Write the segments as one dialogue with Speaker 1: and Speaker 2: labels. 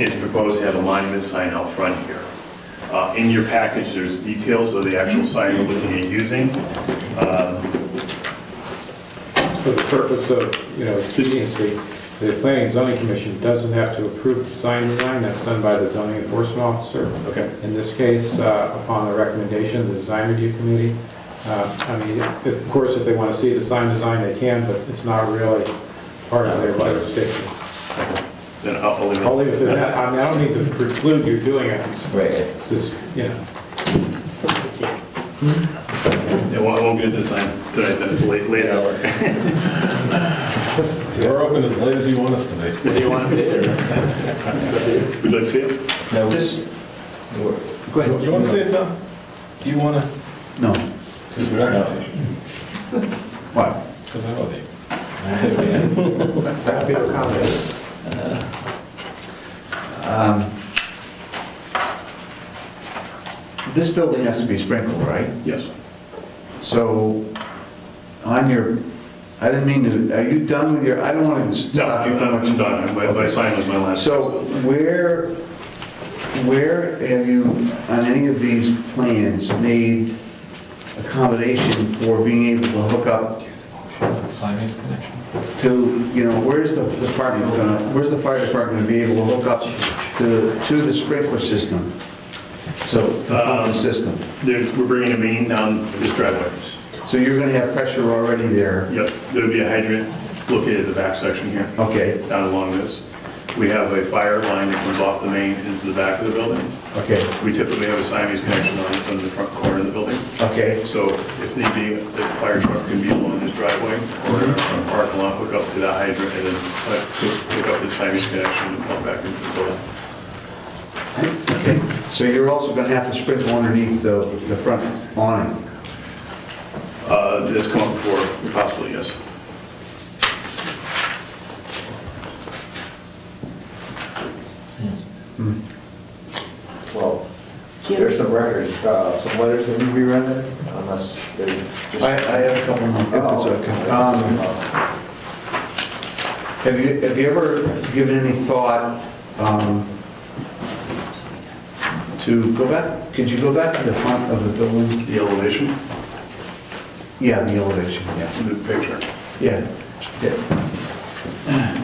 Speaker 1: is proposed to have a monument sign out front here. Uh, In your package, there's details of the actual sign we're looking at using. Uh,
Speaker 2: For the purpose of, you know, expediency, the planning and zoning commission doesn't have to approve the sign design, that's done by the zoning enforcement officer.
Speaker 1: Okay.
Speaker 2: In this case, uh, upon the recommendation of the design review committee, uh, I mean, of course, if they want to see the sign design, they can, but it's not really part of their legislation.
Speaker 1: Then I'll I'll leave
Speaker 2: I'll
Speaker 1: it.
Speaker 2: leave it to that, I mean, I don't need to preclude you doing it,
Speaker 3: Right.
Speaker 2: it's just, you know.
Speaker 1: It won't- it won't get to the sign tonight, then it's late, late hour.
Speaker 4: We're open as late as you want us to be.
Speaker 5: Do you want to see it or?
Speaker 1: Would you like to see it?
Speaker 3: Now,
Speaker 4: Just-
Speaker 3: we're-
Speaker 6: Go ahead.
Speaker 4: You want to say it, Tom? Do you want to?
Speaker 6: No.
Speaker 4: Because we don't have to.
Speaker 6: What?
Speaker 4: Because I owe you.
Speaker 6: Um, This building has to be sprinkled, right?
Speaker 1: Yes.
Speaker 6: So on your, I didn't mean to, are you done with your, I don't want to
Speaker 1: No,
Speaker 6: stop you
Speaker 1: I'm
Speaker 6: from
Speaker 1: done,
Speaker 6: what you
Speaker 1: I'm done. My- My sign was my last.
Speaker 6: So where, where have you, on any of these plans, made accommodation for being able to hook up
Speaker 4: Siamese connection.
Speaker 6: to, you know, where's the department gonna, where's the fire department gonna be able to hook up to, to the sprinkler system? So, to
Speaker 1: Um,
Speaker 6: pump the system.
Speaker 1: There's, we're bringing a main down this driveway.
Speaker 6: So you're gonna have pressure already there,
Speaker 1: Yep, there'll be a hydrant located at the back section here.
Speaker 6: okay,
Speaker 1: down along this. We have a fire line that comes off the main into the back of the building.
Speaker 6: okay,
Speaker 1: We typically have a Siamese connection line from the front corner of the building.
Speaker 6: okay,
Speaker 1: So if need be, the fire truck can be along this driveway or a park lot, hook up to the hydrant and then uh, hook up the Siamese connection and pump back into the building.
Speaker 6: okay. So you're also gonna have to sprinkle underneath the, the front awning?
Speaker 1: Uh, That's come up before, possibly, yes.
Speaker 3: Well, there's some records, uh, some letters that need to be read in, unless they're just... Oh,
Speaker 6: I, I have a couple more. if it's okay. Um, Have you, have you ever given any thought um, to go back, could you go back to the front of the building?
Speaker 1: The elevation
Speaker 6: Yeah, the elevation, yeah.
Speaker 1: in the picture.
Speaker 6: Yeah. yeah.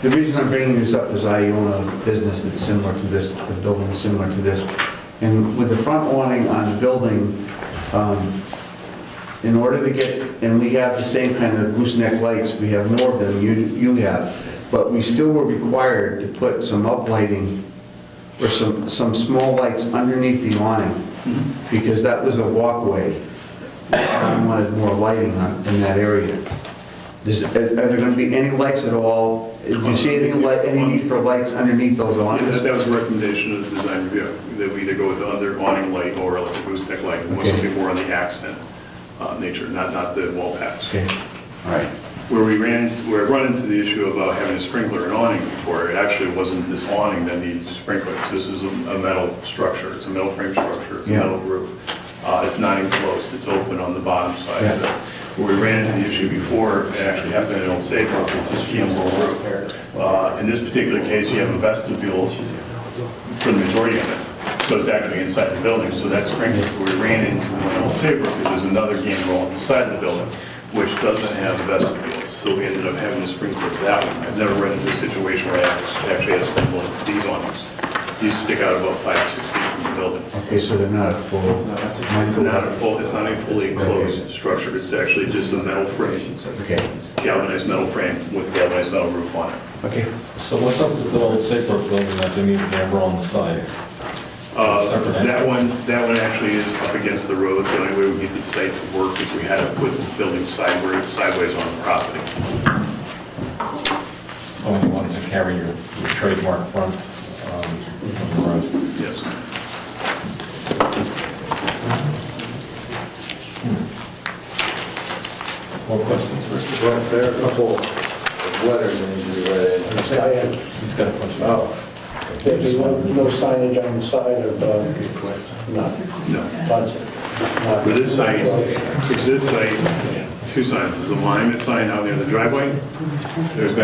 Speaker 6: The reason I'm bringing this up is I own a business that's similar to this, the building is similar to this. And with the front awning on the building, um, in order to get, and we have the same kind of gooseneck lights, we have more of them, you, you have, but we still were required to put some uplighting or some, some small lights underneath the awning,
Speaker 1: Mm-hmm.
Speaker 6: because that was a walkway. I wanted more lighting on- in that area. Is, are there going to be any lights at all? Do you see any light, any need for lights underneath those
Speaker 1: Yeah, That
Speaker 6: awnings?
Speaker 1: that was a recommendation of the design review, that we either go with the other awning light or like a gooseneck light, and what's
Speaker 6: Okay.
Speaker 1: more on the accent uh, nature, not, not the wall packs.
Speaker 6: Okay, all right.
Speaker 1: Where we ran, where I run into the issue about having a sprinkler and awning before, it actually wasn't this awning that needed sprinklers. This is a a metal structure, it's a metal frame structure, it's a
Speaker 6: Yeah.
Speaker 1: metal roof. Uh, It's not enclosed, it's open on the bottom side.
Speaker 6: Yeah.
Speaker 1: Where we ran into the issue before, it actually happened in Old Saybrook, it's a schimbal roof. Uh, In this particular case, you have a vestibule for the majority of it. So it's actually inside the building, so that sprinkler we ran into in Old Saybrook, because there's another game roll inside the building, which doesn't have a vestibule. So we ended up having to sprinkler for that one. I've never run into a situation where I actually had to sprinkle these on us. These stick out about five, six feet from the building.
Speaker 6: Okay, so they're not a full.
Speaker 1: It's not a full, it's not a fully enclosed structure, it's actually just a metal frame,
Speaker 6: Okay,
Speaker 1: galvanized metal frame with galvanized metal roof on it.
Speaker 6: okay.
Speaker 4: So what's up with the old Saybrook building that they need a camera on the side? Separate
Speaker 1: Uh,
Speaker 4: entrance.
Speaker 1: That one, that one actually is up against the road. The only way we get the site to work is we had to put the building sideways, sideways on the property.
Speaker 4: Oh, you wanted to carry your your trademark front um, on the road.
Speaker 1: Yes.
Speaker 4: More questions, Rick?
Speaker 3: Well, there are a couple of letters that need to be read in.
Speaker 7: Diane,
Speaker 4: He's got a question.
Speaker 3: Oh. okay,
Speaker 7: there's
Speaker 3: just
Speaker 7: no
Speaker 3: one.
Speaker 7: no signage on the side of, uh, no,
Speaker 1: No.
Speaker 7: Bunsen. not-
Speaker 1: For this site, for this site, two signs. There's a monument sign out near the driveway. There's been